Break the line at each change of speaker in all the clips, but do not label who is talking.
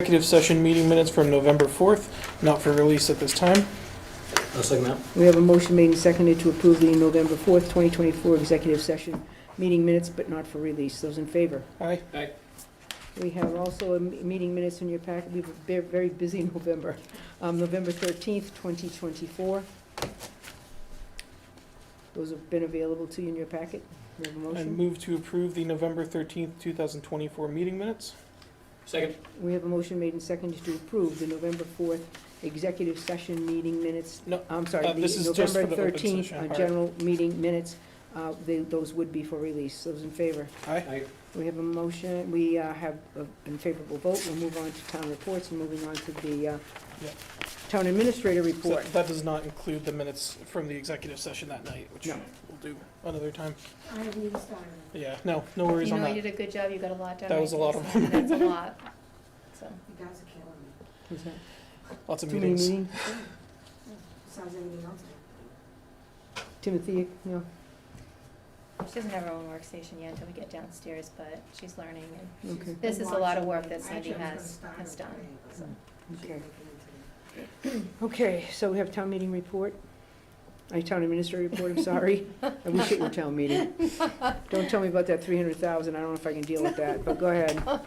Executive session meeting minutes from November 4th, not for release at this time.
I'll second that.
We have a motion made and seconded to approve the November 4th, 2024 executive session meeting minutes, but not for release. Those in favor?
Aye.
We have also a m- meeting minutes in your packet. We've been very busy in November. Um, November 13th, 2024. Those have been available to you in your packet. We have a
I
motion.
move to approve the November 13th, 2024 meeting minutes.
Second.
We have a motion made and seconded to approve the November 4th executive session meeting minutes.
No,
I'm
uh,
sorry, the
this is just
November
for the open
13th
session,
uh,
all right.
general meeting minutes. Uh, they- Those would be for release. Those in favor?
Aye.
Aye.
We have a motion, we uh, have an unfavorable vote. We'll move on to town reports and moving on to the uh,
Yeah.
town administrator
So
report.
That does not include the minutes from the executive session that night, which
No.
we'll do another time.
I haven't even started.
Yeah, no, no worries
You
on
know, you
that.
did a good job, you got a lot done.
That was a lot of
them. That's a lot, so.
You guys are killing me.
Is that
Lots of
too many
meetings.
meetings?
Besides anything else.
Timothy, no,
She doesn't have her own workstation yet until we get downstairs, but she's learning. and
Okay.
This is a lot of work that
Sandy
Cindy has, has done. so.
okay. Okay, so we have town meeting report. I, town administrator report, I'm sorry. I wish it were town meeting. Don't tell me about that 300,000, I don't know if I can deal with that, but go ahead.
All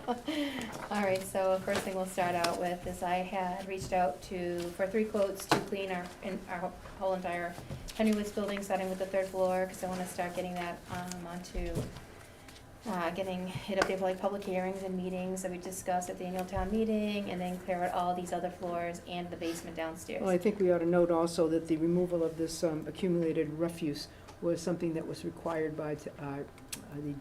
right, so first thing we'll start out with is I had reached out to, for three quotes to clean our, in our whole entire Henry Woods building, starting with the third floor, because I want to start getting that um, onto, uh, getting it up there for like public hearings and meetings that we discussed at the annual town meeting, and then clear out all these other floors and the basement downstairs.
Well, I think we ought to note also that the removal of this um, accumulated refuse was something that was required by uh, uh,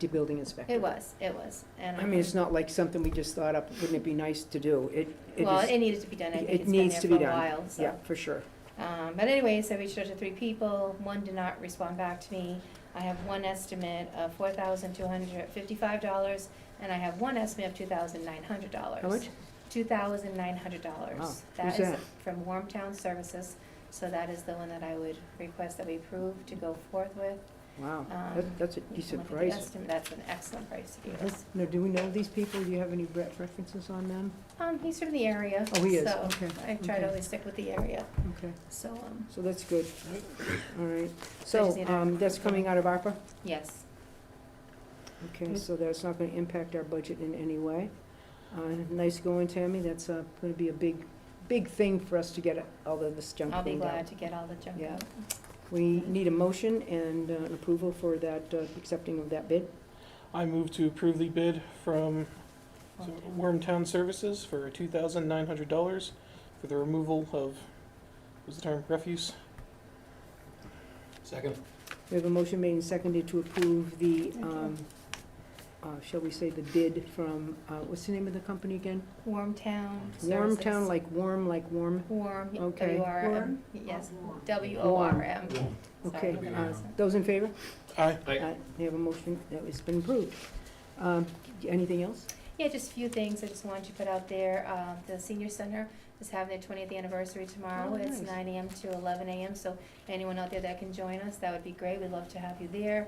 the building inspector.
It was, it was, and.
I mean, it's not like something we just thought up, wouldn't it be nice to do? It, it
Well, it
is,
needed to be done, I
it
think it's been
needs
there
to
for
be
a
done.
while, so.
yeah, for sure.
Um, but anyways, I reached out to three people, one did not respond back to me. I have one estimate of four thousand two hundred fifty-five dollars, and I have one estimate of two thousand nine hundred dollars.
How much?
Two thousand nine hundred
Wow,
dollars.
who's that?
is from Warmtown Services, so that is the one that I would request that we approve to go forth with.
Wow,
Um,
that- that's a
You can
decent
look at the
price. Uh-huh.
estimate. That's an excellent price to give us.
Now, do we know these people? Do you have any re- references on them?
Um, he's from the area,
Oh, he is,
so
okay,
I try
okay.
to always stick with the area,
Okay,
so, um,
so that's good. All right,
So I
so
just need a-
um, that's coming out of ARPA?
yes. Mm-hmm.
Okay, so that's not going to impact our budget in any way. Uh, Nice going, Tammy. That's going to be a big, big thing for us to get all of this junk
I'll be
cleaned out.
glad Mm-hmm. to get all the junk
Yeah.
out.
We need a motion and uh, an approval for that, uh, accepting of that bid.
I move to approve the bid from so,
Warmtown.
Wormtown Services for $2,900 for the removal of, was the term, refuse?
Second.
We have a motion made and seconded to approve the, um, uh, shall we say, the bid from, uh, what's the name of the company again?
Warm Town.
Warm
Services.
Town, like warm, like warm.
Warm, yeah,
Okay.
W R M,
Warm?
yes,
Warm.
W O R M.
Warm.
Okay,
Sorry.
uh, those in favor?
Aye.
Aye.
Uh, They have a motion that has been approved. Um, Anything else?
Yeah, just a few things I just wanted to put out there. Um, The senior center is having their twentieth anniversary tomorrow.
Oh,
It's
nice.
nine AM to eleven AM, so anyone out there that can join us, that would be great. We'd love to have you there.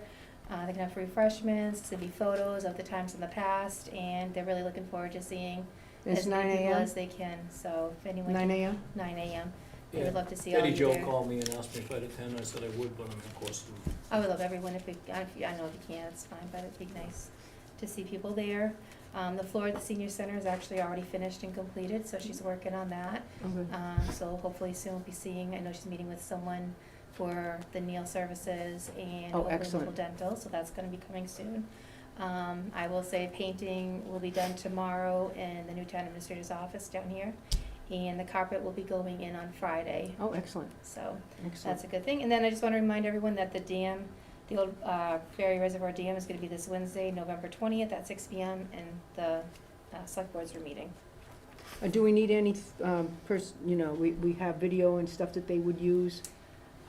Uh, They can have refreshments, there'll be photos of the times in the past, and they're really looking forward to seeing
It's
as
nine
many people
AM?
as they can, so if anyone.
Nine AM?
Nine AM. We
Yeah.
would love to see all of
Eddie
you
Joe
there.
called me and asked me if I'd attend, I said I would, but I'm of course.
I would love everyone if we, I if you- I know if you can't, it's fine, but it'd be nice to see people there. Um, the floor at the senior center is actually already finished and completed, so she's working on that.
Okay.
Um, so hopefully soon we'll be seeing, I know she's meeting with someone for the Neil Services and
Oh,
Oakland
excellent.
Local Dental, so that's gonna be coming soon. Um, I will say painting will be done tomorrow in the new town administrator's office down here. And the carpet will be going in on Friday,
Oh, excellent,
so
excellent.
that's a good thing. And then I just want to remind everyone that the dam, the old uh, Ferry Reservoir Dam is going to be this Wednesday, November 20th at 6 PM, and the uh, select boards are meeting.
Uh, Do we need any, um, pers- you know, we we have video and stuff that they would use?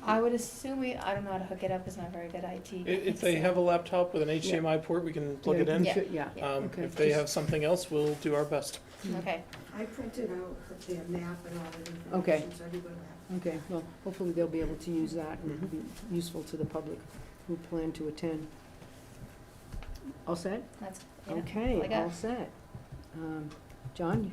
I would assume we, I don't know how to hook it up, it's not very good IT.
I- If they have a laptop with an HDMI port, we can plug it in.
Yeah, Yeah.
Um,
Okay,
If they
just-
have something else, we'll do our best.
Okay,
I printed out their map and all the information.
Okay.
So everybody will
Okay, well, hopefully they'll be able to use that and
Mhm.
be useful to the public who plan to attend. All set?
that's, yeah.
Okay,
Like a-
all set. Um, John,